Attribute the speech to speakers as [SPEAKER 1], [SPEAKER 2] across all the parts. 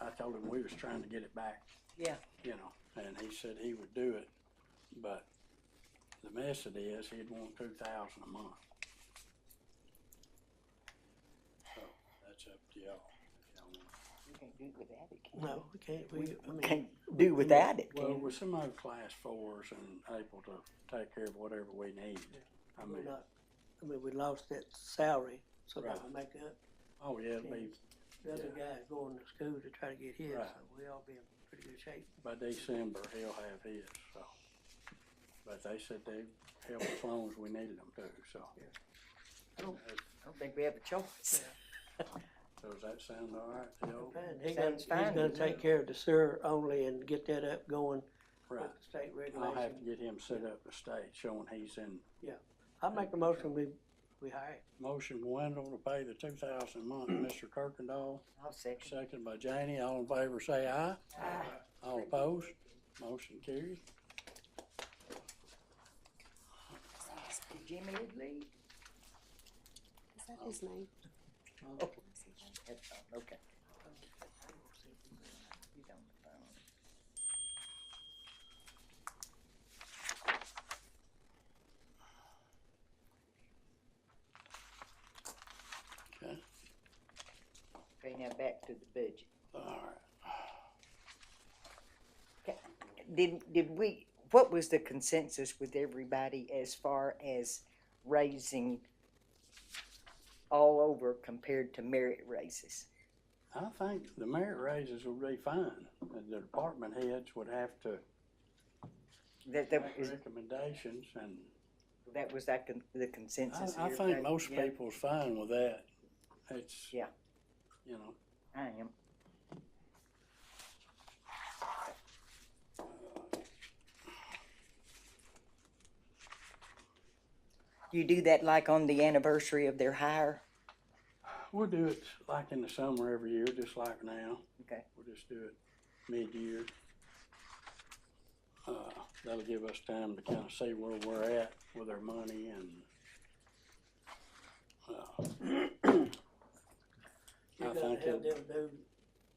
[SPEAKER 1] I told him we was trying to get it back,
[SPEAKER 2] Yeah,
[SPEAKER 1] you know, and he said he would do it, but the mess it is, he'd want two thousand a month. So, that's up to y'all. if y'all want.
[SPEAKER 2] we can't do it without it, can
[SPEAKER 3] No, we can't, we, I
[SPEAKER 2] we?
[SPEAKER 3] mean,
[SPEAKER 2] Can't do without it,
[SPEAKER 1] Well,
[SPEAKER 2] can we?
[SPEAKER 1] with some other class fours and able to take care of whatever we need, I
[SPEAKER 3] we're
[SPEAKER 1] mean,
[SPEAKER 3] not, I mean, we lost that salary, so that
[SPEAKER 1] Right.
[SPEAKER 3] we make up.
[SPEAKER 1] oh yeah, it'd be
[SPEAKER 3] The other
[SPEAKER 1] Yeah.
[SPEAKER 3] guy's going to school to try to get his,
[SPEAKER 1] Right.
[SPEAKER 3] so we all be in pretty good shape.
[SPEAKER 1] by December, he'll have his, so. But they said they'd help as long as we needed them to, so.
[SPEAKER 2] I don't think we have a choice.
[SPEAKER 1] So Does that sound all right to y'all?
[SPEAKER 3] And he's gonna,
[SPEAKER 2] Sounds
[SPEAKER 3] he's
[SPEAKER 2] fine to
[SPEAKER 3] gonna
[SPEAKER 2] me.
[SPEAKER 3] take care of the sewer only and get that up going with
[SPEAKER 1] Right,
[SPEAKER 3] the state
[SPEAKER 1] I'll have to
[SPEAKER 3] regulation.
[SPEAKER 1] get him set up the state, showing he's in
[SPEAKER 3] I make a motion, we, we hire him.
[SPEAKER 1] motion Wendell to pay the two thousand a month, Mr. Kirkendall,
[SPEAKER 2] I'll second.
[SPEAKER 1] second by Janie, all in favor say aye.
[SPEAKER 2] Ah. Uh,
[SPEAKER 1] All opposed, motion carries.
[SPEAKER 2] Jimmy would leave?
[SPEAKER 4] Is that his name?
[SPEAKER 2] That's all, uh, Okay. You don't know.
[SPEAKER 1] Okay,
[SPEAKER 2] Okay, now back to the budget.
[SPEAKER 1] all right.
[SPEAKER 2] Did, did we, what was the consensus with everybody as far as raising all over compared to merit raises?
[SPEAKER 1] I think the merit raises will be fine, and the department heads would have to
[SPEAKER 2] That, that
[SPEAKER 1] make
[SPEAKER 2] was,
[SPEAKER 1] recommendations, and
[SPEAKER 2] that was that con- the consensus?
[SPEAKER 1] I, I
[SPEAKER 2] here,
[SPEAKER 1] think
[SPEAKER 2] right?
[SPEAKER 1] most
[SPEAKER 2] Yeah,
[SPEAKER 1] people's fine with that. It's.
[SPEAKER 2] Yeah.
[SPEAKER 1] You know,
[SPEAKER 2] I am. You do that like on the anniversary of their hire?
[SPEAKER 1] we'll do it like in the summer every year, just like now.
[SPEAKER 2] Okay.
[SPEAKER 1] We'll just do it mid-year. Uh, that'll give us time to kind of see where we're at with our money and, uh, I
[SPEAKER 3] You're gonna
[SPEAKER 1] think it'll
[SPEAKER 3] have them do,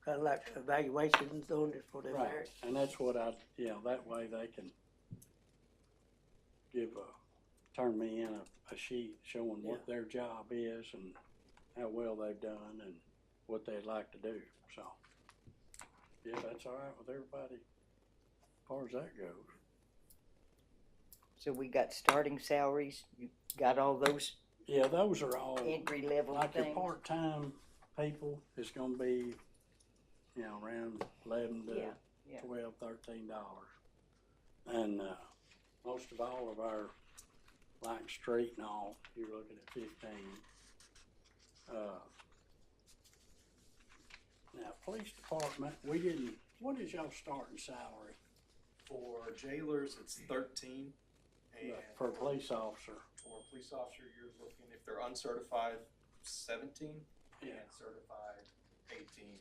[SPEAKER 3] kinda like evaluations on it for their
[SPEAKER 1] Right,
[SPEAKER 3] merit.
[SPEAKER 1] and that's what I, you know, that way they can give a, turn me in a, a sheet showing what their job is and how well they've done and what they'd like to do, so. Yeah, that's all right with everybody, as far as that goes.
[SPEAKER 2] So we got starting salaries, you got all those
[SPEAKER 1] Yeah, those are all,
[SPEAKER 2] entry level
[SPEAKER 1] like your
[SPEAKER 2] things?
[SPEAKER 1] part-time people, it's gonna be, you know, around eleven to
[SPEAKER 2] Yeah, yeah.
[SPEAKER 1] twelve, thirteen dollars. And, uh, most of all of our, like street and all, you're looking at fifteen. Uh, Now, police department, we didn't, what is y'all starting salary
[SPEAKER 5] For jailers, it's thirteen, and
[SPEAKER 1] for a police officer?
[SPEAKER 5] for a police officer, you're looking, if they're uncertified, seventeen, and
[SPEAKER 1] Yeah.
[SPEAKER 5] certified, eighteen,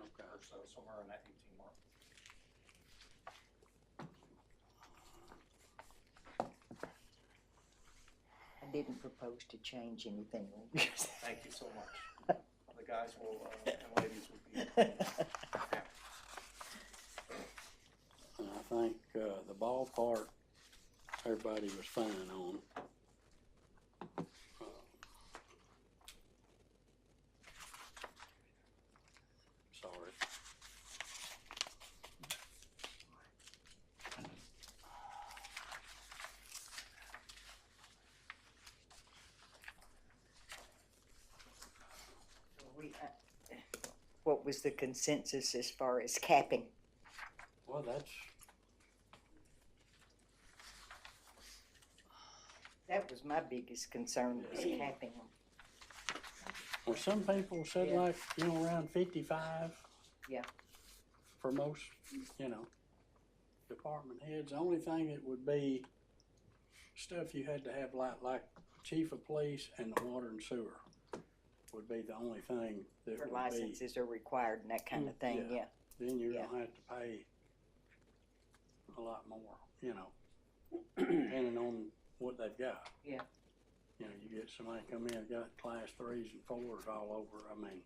[SPEAKER 1] Okay.
[SPEAKER 5] or so, somewhere in that eighteen mark.
[SPEAKER 2] I didn't propose to change anything.
[SPEAKER 5] Thank you so much. The guys will, uh, and ladies will be.
[SPEAKER 1] And I think, uh, the ballpark, everybody was fine on. Um, Sorry.
[SPEAKER 2] We, uh, What was the consensus as far as capping?
[SPEAKER 1] Well, that's,
[SPEAKER 2] That was my biggest concern was capping.
[SPEAKER 1] well, some people said
[SPEAKER 2] Yeah.
[SPEAKER 1] like, you know, around fifty-five.
[SPEAKER 2] Yeah.
[SPEAKER 1] For most, you know, department heads, the only thing that would be stuff you had to have like, like chief of police and the water and sewer would be the only thing that
[SPEAKER 2] For
[SPEAKER 1] would be. Mm,
[SPEAKER 2] licenses are required and that kind of thing, yeah.
[SPEAKER 1] Then you're
[SPEAKER 2] Yeah.
[SPEAKER 1] gonna have to pay a lot more, you know, depending on what they've got.
[SPEAKER 2] Yeah.
[SPEAKER 1] You know, you get somebody come in, got class threes and fours all over, I mean.